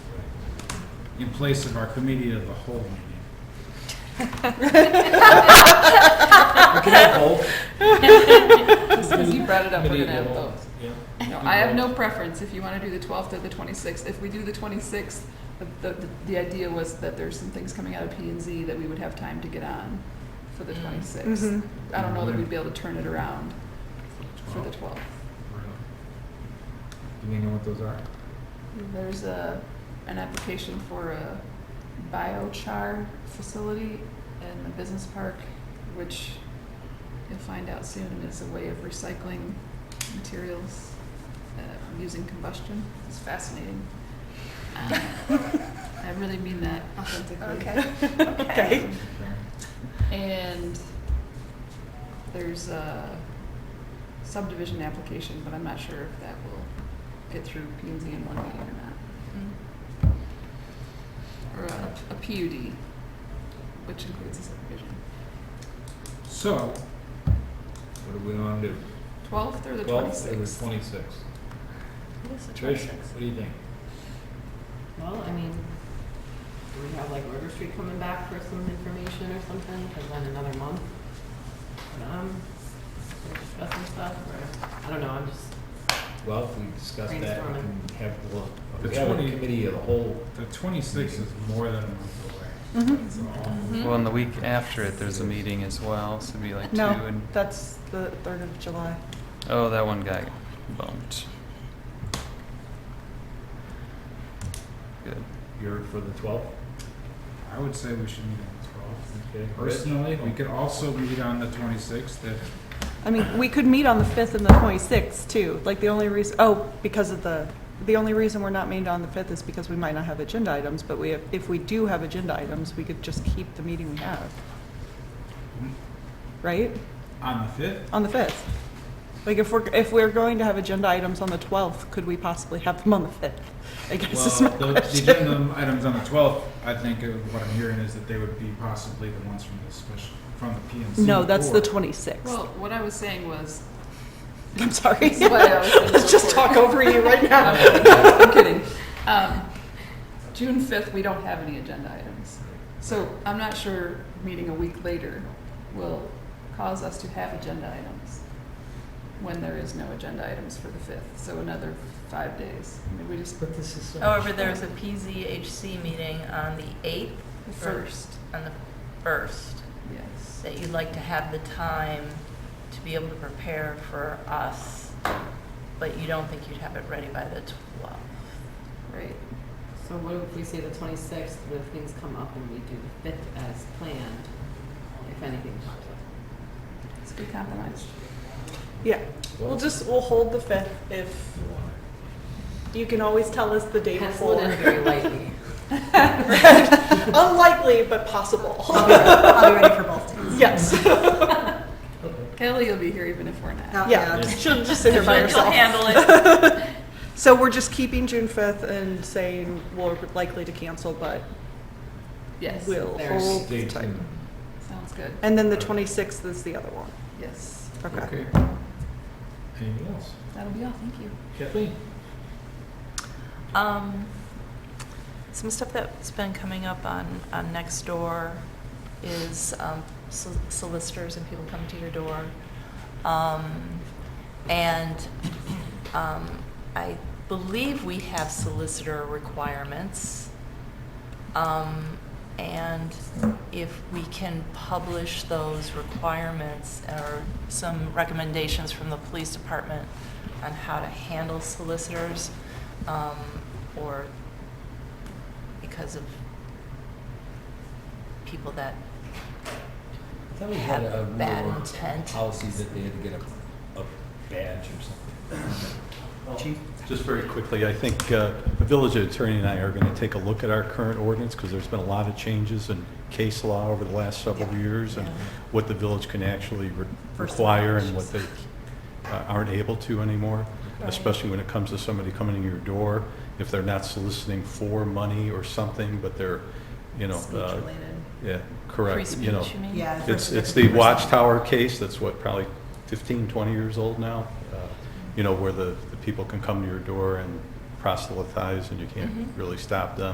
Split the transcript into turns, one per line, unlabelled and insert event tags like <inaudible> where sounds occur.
in place of our committee of the whole meeting. Okay, poll.
Because you brought it up, we're
Committee
gonna
of the
have
whole.
those.
Yeah.
No, I have no preference if you wanna do the twelfth or the twenty-sixth. If we do the twenty-sixth, the, the, the idea was that there's some things coming out of P and Z that we would have time to get on for the
Mm.
twenty-sixth.
Mhm.
I don't know
Mm-hmm.
that we'd be able to turn it around for the
Twelve.
twelfth.
Really? Do you know what those are?
There's a, an application for a biochar facility in the business park, which you'll find out soon is a way of recycling materials uh, using combustion. It's fascinating. Um, I really mean that authentically. <laughs> Um,
Okay.
Okay.
And there's a subdivision application, but I'm not sure if that will get through P and Z in one meeting or not.
Mm.
or a, a PUD, which includes a subdivision.
So, what do we want to do?
Twelfth or the
Twelve or the
twenty-sixth?
twenty-sixth?
What is the
Trish,
26th?
what do you think?
Well, I mean, do we have like River Street coming back for some information or something? Cause then another month, um, we're discussing stuff, or, I don't know, I'm just,
Well, if we discuss that, we can have, well,
The
we have a
20
committee of the whole.
The twenty-sixth is more than a month away.
Mm-hmm.
That's all.
Well, and the week after it, there's a meeting as well, so it'd be like two
No,
and,
that's the third of July.
oh, that one guy bumped. Good.
You're for the twelfth,
I would say we should meet on the twelfth.
okay?
Personally, we could also meet on the twenty-sixth if,
I mean, we could meet on the fifth and the twenty-sixth too. Like the only reason, oh, because of the, the only reason we're not meeting on the fifth is because we might not have agenda items. But we have, if we do have agenda items, we could just keep the meeting we have.
Mm-hmm.
Right?
on the fifth,
On the fifth. Like if we're, if we're going to have agenda items on the twelfth, could we possibly have them on the fifth? I guess is my
Well, the, the
question.
agenda items on the twelfth, I think of what I'm hearing is that they would be possibly the ones from the special, from the P and Z.
No, that's the
board.
twenty-sixth.
Well, what I was saying was,
I'm <laughs> sorry.
That's what I was gonna
Let's just
report.
talk over you right
<laughs>
now.
I'm kidding. Um, June fifth, we don't have any agenda items. So I'm not sure meeting a week later will cause us to have agenda items when there is no agenda items for the fifth, so another five days. I mean, we just, the
But this is.
However, Oh, there is a PZHC meeting on the 8th,
first,
on the 1st,
yes.
that you'd like to have the time to be able to prepare for us, but you don't think you'd have it ready by the 12th.
Right.
so what if we say the twenty-sixth, but if things come up and we do the fifth as planned, if anything comes up?
It's a good compromise.
Yeah, we'll just, we'll hold the fifth if, you can always tell us the day
Pencil it in
before.
very lightly.
Unlikely, but possible,
I'll be ready, I'll be ready for both days.
yes.
Kelly will be here even if we're not.
Not
Yeah,
bad.
she'll just sit here by
But you'll
herself.
handle it.
So we're just keeping June fifth and saying we're likely to cancel, but
Yes.
we'll
There's-
hold
Stay
tight.
tuned.
Sounds good.
And then the twenty-sixth is the other one,
Yes.
okay.
Okay.
Anything else?
That'll be all. Thank you.
Kathleen?
Um, some stuff that's been coming up on, on Nextdoor is um, sol- solicitors and people come to your door. Um, and um, I believe we have solicitor requirements. Um, and if we can publish those requirements or some recommendations from the police department on how to handle solicitors, um, or because of people that,
I thought we had
Have
a
bad
rule or
intent.
Policy that they had to get a, a badge or something. Chief?
Just very quickly, I think uh, the village attorney and I are going to take a look at our current ordinance because there's been a lot of changes in case law over the last several years and
Yeah.
what the village can actually re-
First
require and
impressions.
what they uh, aren't able to anymore,
Right.
especially when it comes to somebody coming in your door, if they're not soliciting for money or something, but they're, you know,
Speech
uh,
related.
yeah,
free
correct,
speech,
you know.
you mean?
Yeah.
It's,
first-
it's the Watchtower case, that's what, probably 15, 20 years old now, uh, you know, where the, the people can come to your door and proselytize, and you can't
Mhm.
really stop them.